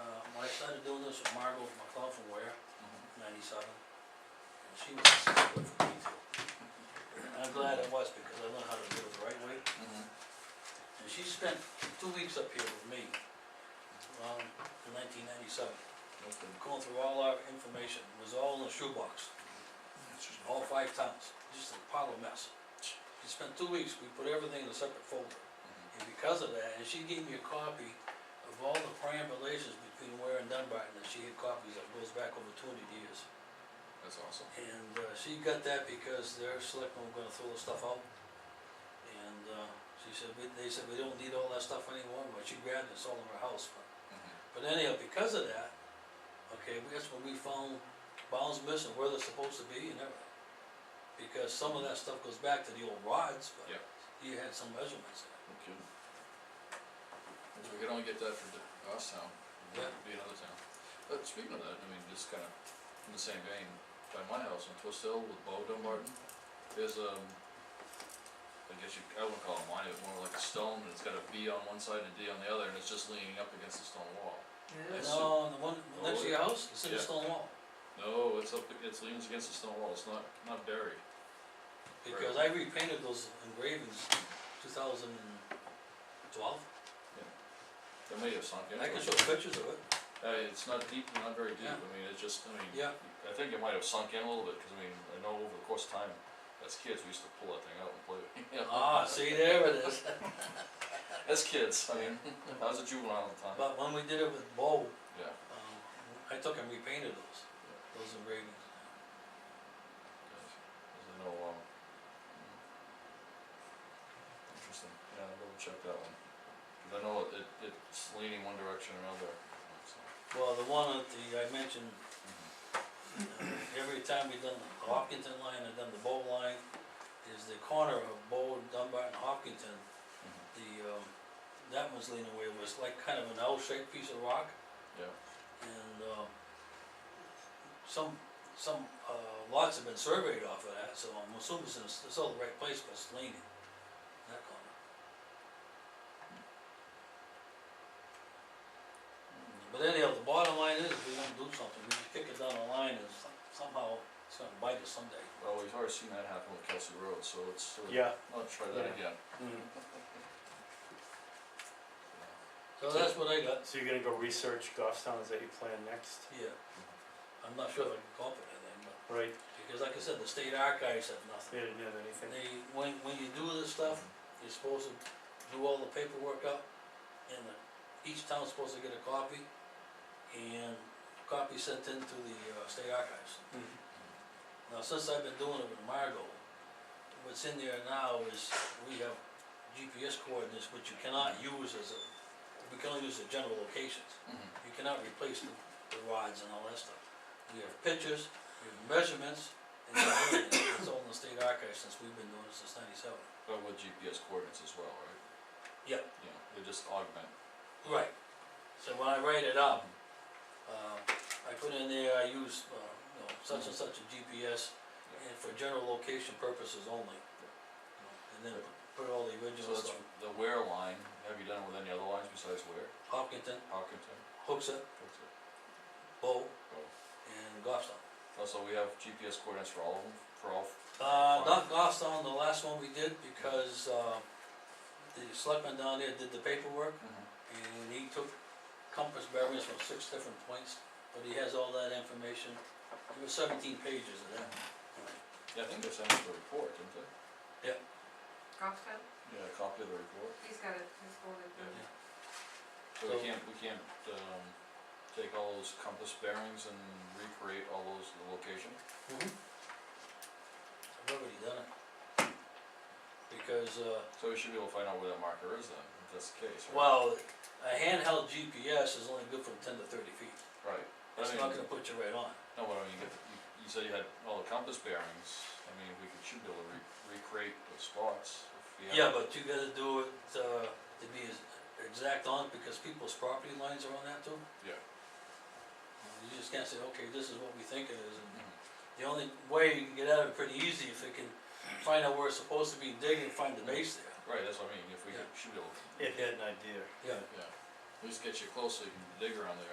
Uh, started doing this with Margot McLeod from Ware, ninety-seven. And she was a good for me too. And I'm glad it was because I learned how to do it the right way. And she spent two weeks up here with me, um, in nineteen ninety-seven. Okay. Going through all our information, it was all in a shoebox, all five towns, just a pile of mess. She spent two weeks, we put everything in a separate folder. And because of that, and she gave me a copy of all the triangulations between Ware and Dunbarton, and she had copies that goes back over twenty years. That's awesome. And, uh, she got that because their selectmen were gonna throw the stuff out. And, uh, she said, we, they said, we don't need all that stuff anymore, but she grabbed it, it's all in her house, but. Mm-hmm. But anyhow, because of that, okay, that's when we found bounds missing, where they're supposed to be and everything. Because some of that stuff goes back to the old rods, but Yeah. you had some measurements in it. Okay. If we could only get that for the- us now, it Yeah. would be another town. But speaking of that, I mean, just kinda in the same vein, by my house on Twist Hill with Bo Dumbarton, there's um, I guess you, I wouldn't call it mine, it's more like a stone, and it's got a V on one side and a D on the other, and it's just leaning up against the stone wall. Yes. Yeah. No, uh, the one next to your house, it's in the Oh, Yeah. stone wall, No, it's up, it's leans against the stone wall, it's not, not buried. because I repainted those engravings in two thousand and twelve, It may have sunk in. and I can show pictures of it, Uh, it's not deep, not very deep, Yeah. I mean, it's just, I mean, yeah, I think it might have sunk in a little bit, cause I mean, I know over the course of time, as kids, we used to pull that thing out and play with it. you know? ah, see, there it is. As kids, I mean, I was a juvenile at the time, But when we did it with Bo, yeah. um, I took and repainted those, those engravings. Cause I know, um. mm-hmm. Interesting, yeah, I'll go check that one, cause I know it, it- it's leaning one direction or another, so. Well, the one at the, I mentioned, uh, every time we done the Hopkinton line, I done the Bow line, is the corner of Bow, Dunbar and Hopkinton, the, um, that one's leaning away, was like kind of an L-shaped piece of rock, Yeah, and, um, some, some, uh, lots have been surveyed off of that, so I'm assuming it's, in- it's all the right place, but it's leaning, that corner. But anyhow, the bottom line is, if we don't do something, we just kick it down the line, and some- somehow, it's gonna bite us someday. well, we've already seen that happen with Kelsey Road, so let's, sort of- Yeah. Mm. let's try Yeah. that again. So that's what I got, So you're gonna go research golf towns that you plan next, yeah. I'm not sure if I can call it anything, but, right? because like I said, the state archives have nothing. They didn't have anything. They, when, when you do this stuff, you're supposed to do all the paperwork up, and the- each town's supposed to get a copy, and a copy sent in to the, uh, state archives. Mhm. Now, since I've been doing it with Margot, what's in there now is we have GPS coordinates, which you cannot use as a, we can only use the general locations. Mhm. You cannot replace the, the rods and all that stuff. We have pictures, we have measurements, and we have everything. it's all in the state archives since we've been doing it since ninety-seven. But with GPS coordinates as well, right? Yep. Yeah, they just augment. Right. So when I write it up, um, I put in there, I use, uh, you know, such and such a GPS, and for general location purposes only. You know, And then put all the So original that's stuff, the where line, have you done it with any other lines besides where? Hopkinton, Hopkinton, Hooksett, that's it. Bow, Bow. and Goffstown. Also, Oh, we have GPS coordinates for all of them, for all, Uh, not Goffstown, the last one we did, because, uh, the selectman down there did the paperwork, and he took compass bearings from six different points, but he has all that information. There were seventeen pages of that. yeah, I think they sent us the report, didn't they? Goffstown, Yeah, a copy of the report. he's got it, he's holding it. Yeah. So we So- can't, we can't, um, take all those compass bearings and recreate all those, the location? I've already done it. Because, uh, So we should be able to find out where that marker is then, if that's the case, right? well, a handheld GPS is only good from ten to thirty feet, Right. But I it's mean, not gonna put you right on. No, but I mean, you get, you, you said you had all the compass bearings, I mean, we could, should be able to re- recreate those spots if we have. Yeah, but you gotta do it, uh, to be as exact on, because people's property lines are on that too. Yeah. You just can't say, okay, this is what we think it is, and Mhm. the only way you can get out of it pretty easy if they can find out where it's supposed to be, dig and find the base there. Right, that's what I mean, if we Yeah. should be able, It had an idea. Yeah. yeah, at least get you close so you can dig around there.